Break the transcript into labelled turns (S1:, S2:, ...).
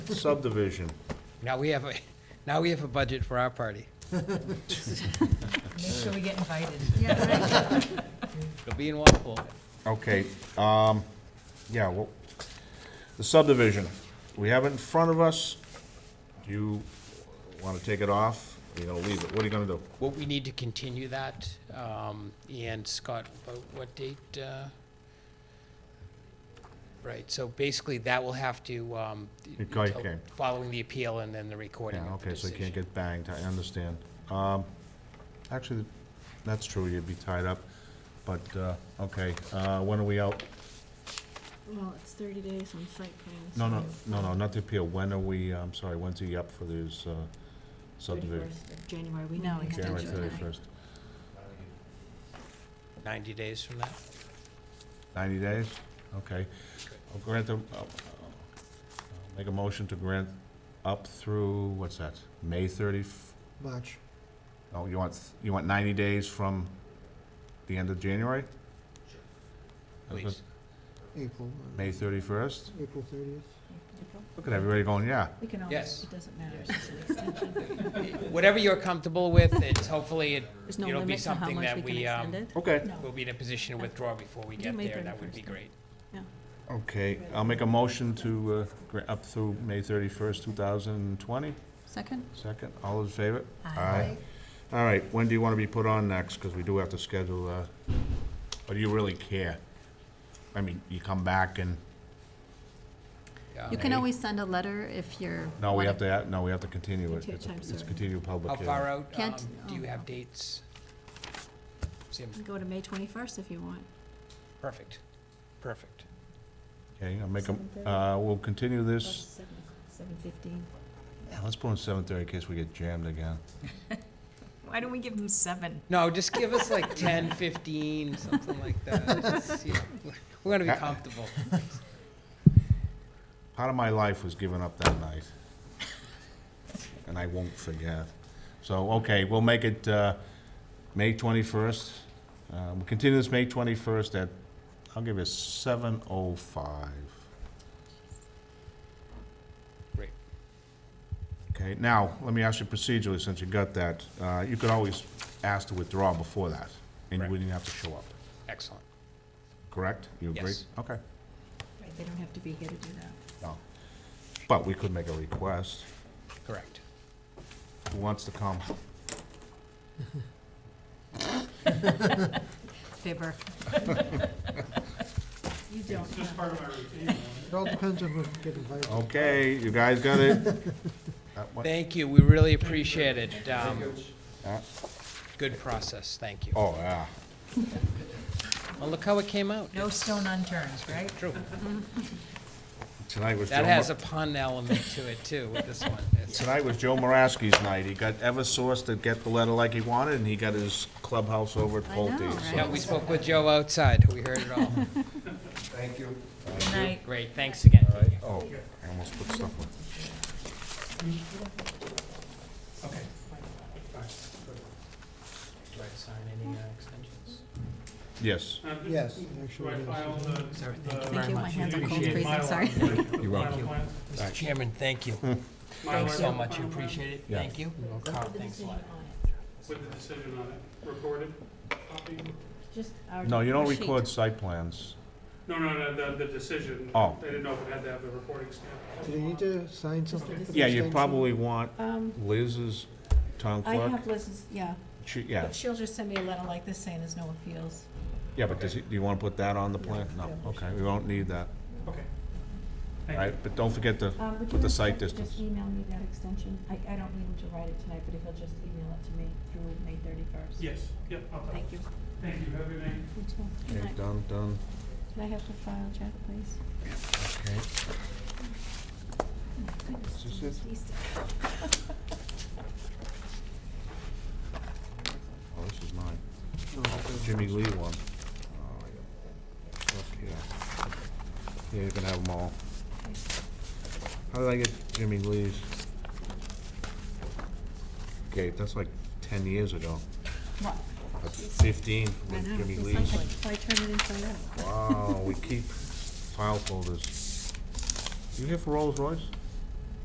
S1: subdivision.
S2: Now we have, a now we have a budget for our party.
S3: Make sure we get invited.
S2: It'll be in Walpole.
S1: Okay, um, yeah, well, the subdivision, we have it in front of us. Do you wanna take it off? Are you gonna leave it? What are you gonna do?
S2: What we need to continue that, um, and Scott, about what date? uh, Right, so basically that will have to, um,
S1: Okay,
S2: until
S1: okay.
S2: following the appeal and then the recording
S1: Yeah,
S2: of the
S1: okay, so you can't
S2: decision.
S1: get banged, I understand. Um, actually, that's true, you'd be tied up, but, uh, okay, uh, when are we out?
S4: Well, it's thirty days on site plans.
S1: No, no, no, no, not the appeal, when are we, I'm sorry, when's he up for this uh, subdivision?
S4: January, we
S3: No,
S4: know.
S3: we
S1: January
S3: Extension.
S1: thirty-first.
S2: Ninety days from that?
S1: Ninety days? Okay. I'll grant them, I'll- I'll- I'll make a motion to grant up through, what's that, May thirty?
S5: March.
S1: Oh, you want, you want ninety days from the end of January? That's
S2: Please.
S1: what-
S5: April, uh,
S1: May thirty-first?
S5: April thirtieth.
S1: Look at everybody going, yeah.
S3: We can
S2: Yes.
S3: always, it doesn't matter, it's just an extension.
S2: Whatever you're comfortable with, it's hopefully, it-
S4: There's no
S2: it'll be
S4: limit to how
S2: something
S4: much
S2: that
S4: we can
S2: we, um,
S4: extend it.
S1: Okay.
S2: we'll
S4: No,
S2: be in a position to withdraw before we
S4: Do
S2: get
S4: May
S2: there, that would be
S4: 31st.
S2: great.
S1: Okay, I'll make a motion to, uh, gra- up through May thirty-first, two thousand and twenty.
S4: second?
S1: Second, all those in favor?
S3: Aye.
S1: All right, when do you want to be put on next? Because we do have to schedule, uh, or do you really care? I mean, you come back and,
S2: Um,
S4: You can
S1: May.
S4: always send a letter if you're.
S1: no, we
S4: wanna-
S1: have to, add- no, we have to continue it.
S4: Continue
S1: It's a-
S4: time,
S1: It's a
S4: sir.
S1: continued public
S2: How
S1: hearing.
S2: far out, um,
S4: Can't-
S2: do you
S4: oh,
S2: have
S4: no.
S2: dates? Sim,
S4: Go to May twenty-first if you want.
S2: perfect, perfect.
S1: Okay, I'll make
S3: Seven
S1: a,
S3: thirty?
S1: uh, we'll continue this.
S3: Seven fifteen.
S1: Yeah, let's put on seven thirty in case we get jammed again.
S3: Why don't we give them seven?
S2: No, just give us like 10, 15, something like that. Just, you know, We're gonna be comfortable.
S1: Part of my life was given up that night. And I won't forget. So, okay, we'll make it, uh, May twenty-first. Uh, we'll continue this May twenty-first at, I'll give it seven oh five.
S2: Great.
S1: Okay, now, let me ask you procedurally, since you got that, uh, you could always ask to withdraw before that, and you
S2: Correct.
S1: wouldn't have to show up,
S2: Excellent.
S1: correct? You agree?
S2: Yes.
S1: Okay,
S3: Right, they don't have to be here to do that.
S1: no. But we could make a request.
S2: Correct.
S1: Who wants to come?
S3: Fibber. You don't.
S5: It all depends on who gets invited.
S1: Okay, you guys got it? Uh, what-
S2: Thank you, we really appreciate it. Um,
S1: uh,
S2: Good process, thank you.
S1: Oh, yeah.
S2: Well, look how it came out.
S3: No stone unturned, right?
S2: True.
S1: Tonight was Joe.
S2: That
S1: Mor-
S2: has a pun element to it too, with this one. It's-
S1: Tonight was Joe Moraski's night. He got Eversource to get the letter like he wanted, and he got his clubhouse over at
S4: I know,
S1: Pulte. so-
S2: Yeah, we spoke with Joe outside, we heard it all.
S1: Thank you.
S3: Good night.
S2: Great, thanks again.
S1: Oh, I almost put stuff on.
S2: Do I sign any uh, extensions?
S1: Yes.
S5: Yes, actually. yes.
S4: Thank you, my hands are cold
S2: Appreciate it.
S4: freezing, sorry.
S1: You're welcome.
S2: Mr. Chairman, thank you. Thanks so much, I appreciate it.
S1: Yeah.
S2: Thank you. Carl, thanks a lot.
S6: With the decision on it, recorded copy?
S4: Just our
S1: No, you don't
S4: sheet.
S1: record site plans.
S6: No, no, no, the, the decision.
S1: Oh.
S6: I didn't know if it had to have the recording stamp.
S5: Do they need to sign something for the
S1: Yeah, you
S5: extension?
S1: probably want
S4: Um,
S1: Liz's town
S4: I
S1: clerk.
S4: have Liz's, yeah,
S1: She- Yeah,
S4: but she'll just send me a letter like this saying there's no appeals.
S1: yeah, but does he, do you want to put that on the plan? No, okay, we won't need that.
S6: Okay.
S1: All
S6: Thank you.
S1: right, but don't forget to
S4: Um, would you
S1: put the
S4: mind
S1: site
S4: if you
S1: distance.
S4: Just email me that extension. I, I don't need him to write it tonight, but if he'll just email it to me through May thirty-first.
S6: Yes, yep, I'll tell.
S4: Thank you.
S6: Thank you, have a good night.
S4: You too. Good
S1: Okay,
S4: night.
S1: done, done,
S4: Can I have the file, Jack, please?
S1: okay.
S4: Goodness,
S1: Is this it?
S4: please.
S1: Oh, this is mine.
S5: No, it's
S1: Jimmy Lee one. Oh, I got stuff here. Yeah, you can have them all. How did I get Jimmy Lee's? Okay, that's like ten years ago.
S4: What?
S1: Like Fifteen
S4: I
S1: with
S4: know,
S1: Jimmy
S4: it's
S1: Lee's.
S4: like, why turn it inside out?
S1: Wow, we keep file folders. You here for Rolls Royce?